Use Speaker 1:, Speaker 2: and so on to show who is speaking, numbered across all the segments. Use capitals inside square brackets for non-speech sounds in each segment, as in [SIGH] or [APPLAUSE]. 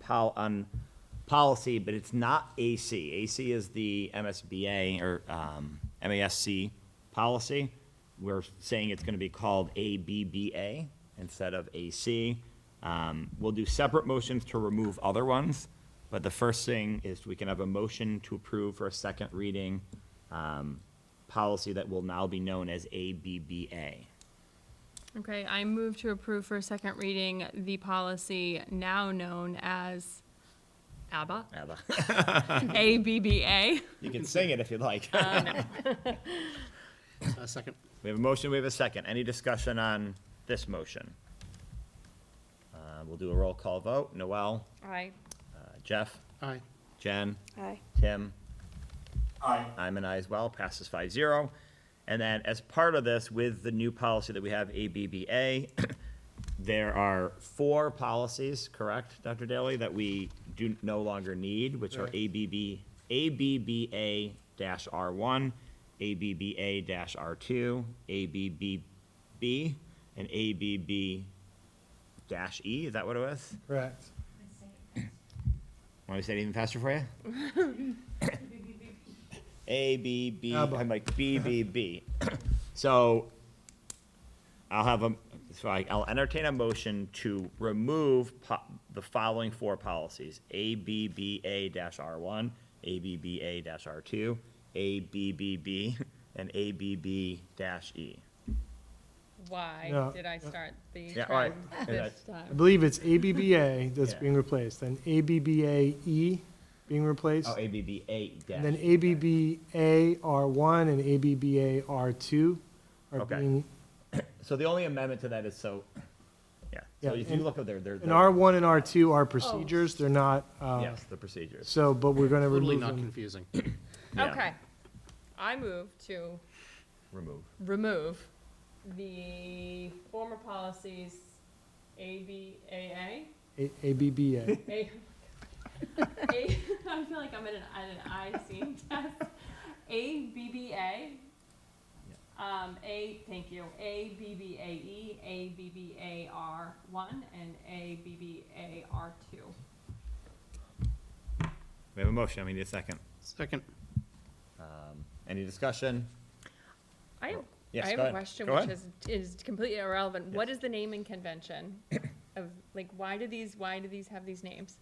Speaker 1: pol, on policy, but it's not AC. AC is the MSBA or, um, MASC policy. We're saying it's gonna be called ABBA instead of AC. Um, we'll do separate motions to remove other ones, but the first thing is we can have a motion to approve for a second reading, um, policy that will now be known as ABBA.
Speaker 2: Okay, I move to approve for a second reading the policy now known as
Speaker 1: [LAUGHS]
Speaker 2: ABBA, ABBA.
Speaker 1: You can sing it if you'd [LAUGHS] like.
Speaker 3: A Uh, second.
Speaker 1: We have a motion, we have a second. Any discussion on this motion? Uh, We'll do a roll call vote. Noel,
Speaker 2: Aye.
Speaker 1: uh, Jeff,
Speaker 3: Aye.
Speaker 1: Jen,
Speaker 4: Aye.
Speaker 1: Tim? Aye. I'm an aye as well, passes five zero. And then as part of this, with the new policy that we have, ABBA, [CLEARS THROAT] there are four policies, correct, Dr. Daly, that we do no longer need, which are
Speaker 3: Right.
Speaker 1: ABB, ABBA dash R one, ABBA dash R two, ABBB, and ABB dash E, is that what it was?
Speaker 3: Correct.
Speaker 1: Want me to say it even faster [LAUGHS] for you? A, B, B,
Speaker 3: Abba.
Speaker 1: I'm like B, B, B. [LAUGHS] So I'll have a, so I- I'll entertain a motion to remove po- the following four policies. A, B, B, A dash R one, A, B, B, A dash R two, A, B, B, B, and A, B, B dash E.
Speaker 2: Why
Speaker 5: Yeah.
Speaker 2: did I start the
Speaker 1: Yeah, all right.
Speaker 2: trend
Speaker 1: And
Speaker 2: this
Speaker 5: I
Speaker 2: time?
Speaker 5: believe it's ABBA that's
Speaker 1: Yeah.
Speaker 5: being replaced, then ABBAE E being replaced,
Speaker 1: Oh, A, B, B, A dash.
Speaker 5: and then ABBAR1 and ABBAR2 are
Speaker 1: Okay.
Speaker 5: being,
Speaker 1: So the only amendment to that is so, yeah. So
Speaker 5: Yeah,
Speaker 1: if you
Speaker 5: and-
Speaker 1: look up there, they're.
Speaker 5: and R1 and R2 are
Speaker 1: Oh.
Speaker 5: procedures, they're not, uh,
Speaker 1: Yes, the procedures.
Speaker 5: so, but we're going to
Speaker 3: Totally
Speaker 5: remove
Speaker 3: not
Speaker 5: them.
Speaker 3: confusing.
Speaker 1: Yeah.
Speaker 2: Okay. I move to
Speaker 1: Remove.
Speaker 2: remove the former policies ABAA,
Speaker 5: A- ABBA.
Speaker 2: A, [LAUGHS] A, I feel like I'm in an, at an eye scene [LAUGHS] test. A B B A. Um, A, thank you. A B B A E, A B B A R one, and A B B A R two.
Speaker 1: We have a motion, I mean, a second.
Speaker 3: Second.
Speaker 1: Any discussion?
Speaker 2: I have,
Speaker 1: Yes,
Speaker 2: I have
Speaker 1: go
Speaker 2: a
Speaker 1: ahead.
Speaker 2: question
Speaker 1: Go
Speaker 2: which
Speaker 1: ahead.
Speaker 2: is, is completely irrelevant. What
Speaker 1: Yes.
Speaker 2: is the naming convention of like why do these why do these have these names?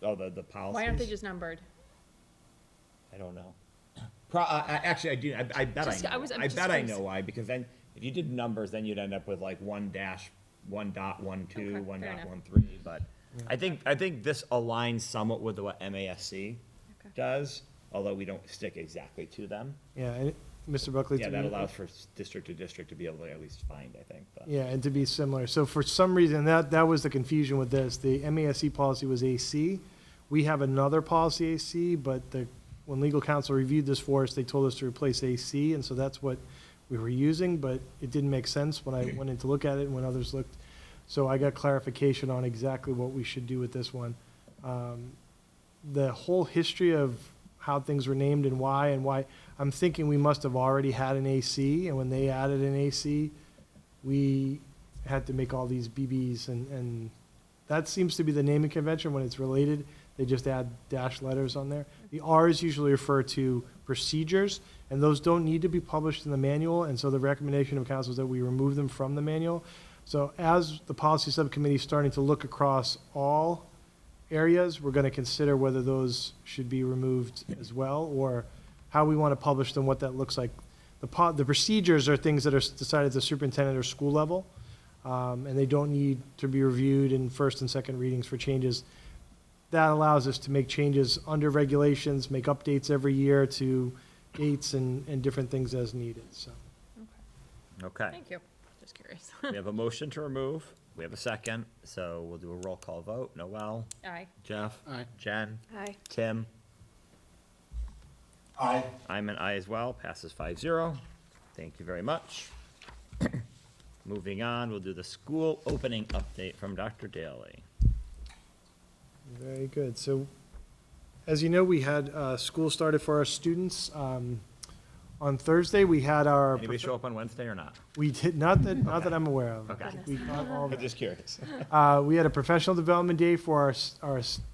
Speaker 1: Oh, the, the policies?
Speaker 2: Why aren't they just numbered?
Speaker 1: I don't know. Pro, uh, actually, I do, I, I bet I
Speaker 2: Just- I
Speaker 1: know.
Speaker 2: was- I'm
Speaker 1: I
Speaker 2: just
Speaker 1: bet I
Speaker 2: curious.
Speaker 1: know why, because then, if you did numbers, then you'd end up with like one dash, one dot one two,
Speaker 2: Okay,
Speaker 1: one
Speaker 2: fair
Speaker 1: dot
Speaker 2: enough.
Speaker 1: one three, but I think, I think this aligns somewhat with what MASC
Speaker 2: Okay.
Speaker 1: does, although we don't stick exactly to them.
Speaker 5: Yeah, and Mr. Buckley.
Speaker 1: Yeah,
Speaker 5: to
Speaker 1: that
Speaker 5: me-
Speaker 1: allows for s- district to district to be able to at least find, I think, but.
Speaker 5: Yeah, and to be similar. So for some reason, that, that was the confusion with this. The MASC policy was AC. We have another policy AC, but the, when legal counsel reviewed this for us, they told us to replace AC, and so that's what we were using, but it didn't make sense when I went in to look at it and when others looked. So I got clarification on exactly what we should do with this one. Um, The whole history of how things were named and why and why, I'm thinking we must have already had an AC, and when they added an AC, we had to make all these BBs and, and that seems to be the naming convention when it's related. They just add dash letters on there. The R's usually refer to procedures and those don't need to be published in the manual. And so the recommendation of council is that we remove them from the manual. So as the policy subcommittee is starting to look across all areas, we're going to consider whether those should be removed as well, or how we want to publish them, what that looks like. The po, the procedures are things that are s- decided at the superintendent or school level, um, and they don't need to be reviewed in first and second readings for changes. That allows us to make changes under regulations, make updates every year to dates and, and different things as needed, so.
Speaker 1: Okay,
Speaker 2: Thank you. Just [LAUGHS] curious.
Speaker 1: we have a motion to remove, we have a second, so we'll do a roll call vote. Noel,
Speaker 2: Aye.
Speaker 1: Jeff?
Speaker 3: Aye.
Speaker 1: Jen?
Speaker 4: Aye.
Speaker 1: Tim? Aye. I'm an aye as well, passes five zero. Thank you very much. [COUGHS] Moving on, we'll do the school opening update from Dr. Daly.
Speaker 5: Very good. So, as you know, we had, uh, school started for our students. Um, on Thursday, we had our.
Speaker 1: Anybody show up on Wednesday or not?
Speaker 5: We did, not that, not that I'm aware of.
Speaker 1: Okay.
Speaker 5: We got all
Speaker 1: I'm
Speaker 5: that.
Speaker 1: just curious.
Speaker 5: Uh, we had a professional development day for our, s- our s-